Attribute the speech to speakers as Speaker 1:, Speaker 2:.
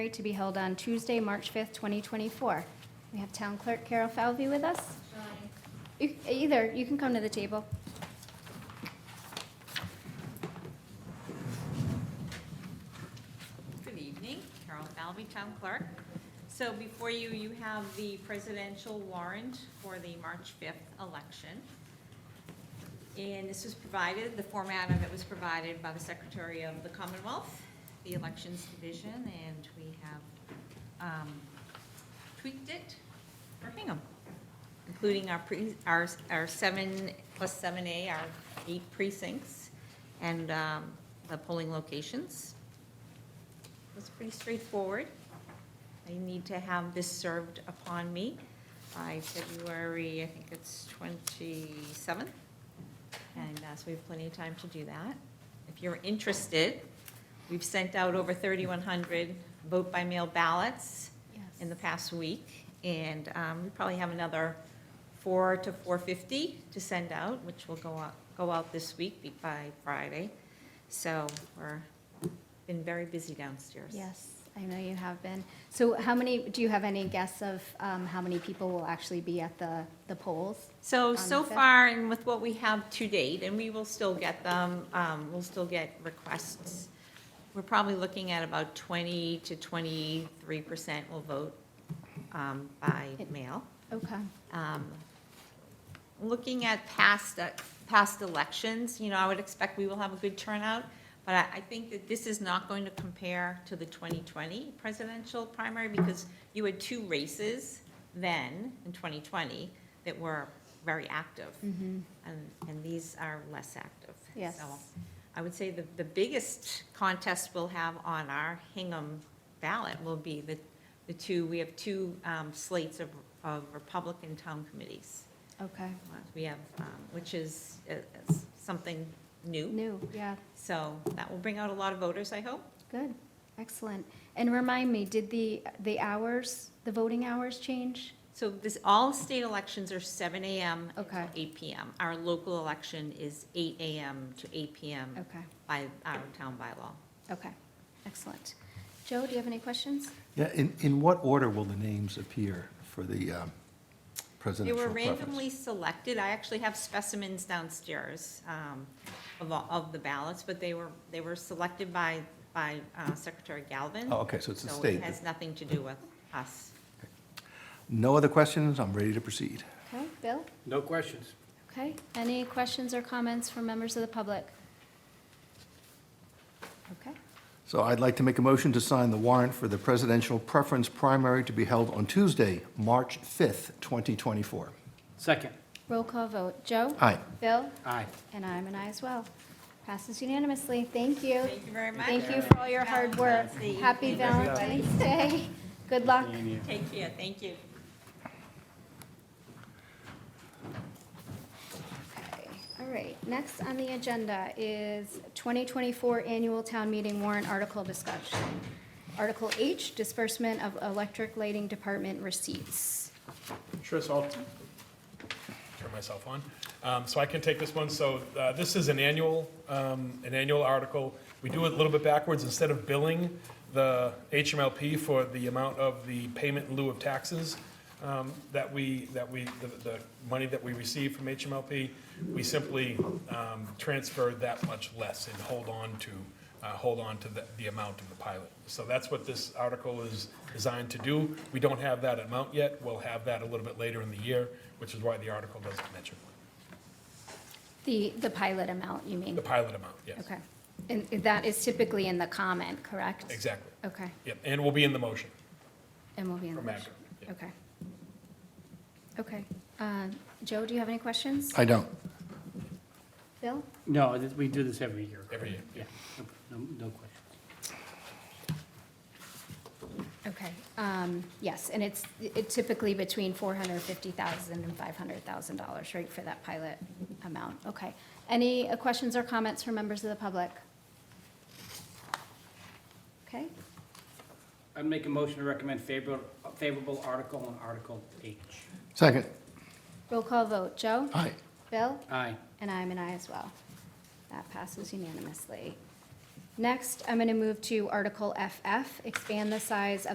Speaker 1: to be held on Tuesday, March 5th, 2024. We have Town Clerk Carol Falvey with us. You- Either, you can come to the table.
Speaker 2: Good evening, Carol Falvey, Town Clerk. So before you, you have the presidential warrant for the March 5th election. And this was provided, the format of it was provided by the Secretary of the Commonwealth, the Elections Division, and we have um, tweaked it for Hingham, including our, pre- our our seven, plus 7A, our eight precincts, and um, the polling locations. It's pretty straightforward. I need to have this served upon me by February, I think it's 27th. And uh, so we have plenty of time to do that. If you're interested, we've sent out over 3,100 vote-by-mail ballots in the past week, and um, we probably have another four to four fifty to send out, which will go out, go out this week be- by Friday. So we're, been very busy downstairs.
Speaker 1: Yes, I know you have been. So how many, do you have any guess of um, how many people will actually be at the the polls?
Speaker 2: So,
Speaker 1: On
Speaker 2: so
Speaker 1: the fifth?
Speaker 2: far, and with what we have to date, and we will still get them, um, we'll still get requests. We're probably looking at about twenty to twenty-three percent will vote, um, by mail.
Speaker 1: Okay,
Speaker 2: Um, Looking at past, uh, past elections, you know, I would expect we will have a good turnout, but I, I think that this is not going to compare to the 2020 presidential primary because you had two races then, in 2020, that were very active. And, and these are less active.
Speaker 1: Yes.
Speaker 2: So I would say the, the biggest contest we'll have on our Hingham ballot will be the, the two, we have two um, slates of, of Republican town committees.
Speaker 1: okay.
Speaker 2: We have, um, which is uh, uh, something new,
Speaker 1: New, yeah,
Speaker 2: so that will bring out a lot of voters, I hope.
Speaker 1: good, excellent. And remind me, did the the hours, the voting hours change?
Speaker 2: So this, all state elections are seven AM
Speaker 1: Okay.
Speaker 2: to eight PM. Our local election is eight AM to eight PM
Speaker 1: Okay,
Speaker 2: by our town bylaw.
Speaker 1: okay, excellent. Joe, do you have any questions?
Speaker 3: Yeah, in, in what order will the names appear for the um,
Speaker 2: They
Speaker 3: presidential
Speaker 2: were
Speaker 3: preference?
Speaker 2: randomly selected. I actually have specimens downstairs um, of, all- of the ballots, but they were, they were selected by, by uh, Secretary Galvin.
Speaker 3: Oh, okay, so it's the
Speaker 2: So
Speaker 3: state.
Speaker 2: it has nothing to do with us.
Speaker 3: No other questions? I'm ready to proceed.
Speaker 1: Okay, Bill?
Speaker 4: No questions.
Speaker 1: Okay, any questions or comments from members of the public? Okay,
Speaker 3: So I'd like to make a motion to sign the warrant for the presidential preference primary to be held on Tuesday, March 5th, 2024.
Speaker 4: Second.
Speaker 1: roll call vote. Joe?
Speaker 3: Aye.
Speaker 1: Bill?
Speaker 4: Aye.
Speaker 1: And I'm an aye as well. Passes unanimously. Thank you.
Speaker 2: Thank you very much.
Speaker 1: Thank you for all your hard work.
Speaker 2: Valentine's Day.
Speaker 1: Happy Valentine's Day. Good luck.
Speaker 2: Take care, thank you.
Speaker 1: Okay, all right. Next on the agenda is 2024 Annual Town Meeting Warrant Article Discussion. Article H, Disbursement of Electric Lighting Department Receipts.
Speaker 5: Sure, so I'll turn myself on. Um, So I can take this one. So uh, this is an annual, um, an annual article. We do it a little bit backwards. Instead of billing the HMLP for the amount of the payment in lieu of taxes um, that we, that we, the- the money that we receive from HMLP, we simply um, transfer that much less and hold on to, uh, hold on to the- the amount of the pilot. So that's what this article is designed to do. We don't have that amount yet. We'll have that a little bit later in the year, which is why the article doesn't mention it.
Speaker 1: The, the pilot amount, you mean?
Speaker 5: The pilot amount, yes.
Speaker 1: Okay. And that is typically in the comment, correct?
Speaker 5: Exactly.
Speaker 1: Okay,
Speaker 5: Yep, and will be in the motion
Speaker 1: and we'll be in the
Speaker 5: from
Speaker 1: motion.
Speaker 5: Acura. yeah.
Speaker 1: Okay. Okay. Uh, Joe, do you have any questions?
Speaker 3: I don't.
Speaker 1: Bill?
Speaker 4: No, th- we do this every year.
Speaker 5: Every year,
Speaker 4: Yeah, no, no no questions.
Speaker 1: Okay, um, yes, and it's it typically between $450,000 and $500,000, right, for that pilot amount? Okay. Any uh, questions or comments from members of the public? Okay,
Speaker 4: I'd make a motion to recommend favorable, favorable article on Article H.
Speaker 3: Second.
Speaker 1: roll call vote. Joe?
Speaker 3: Aye.
Speaker 1: Bill?
Speaker 4: Aye.
Speaker 1: And I'm an aye as well. That passes unanimously. Next, I'm going to move to Article FF, expand the size of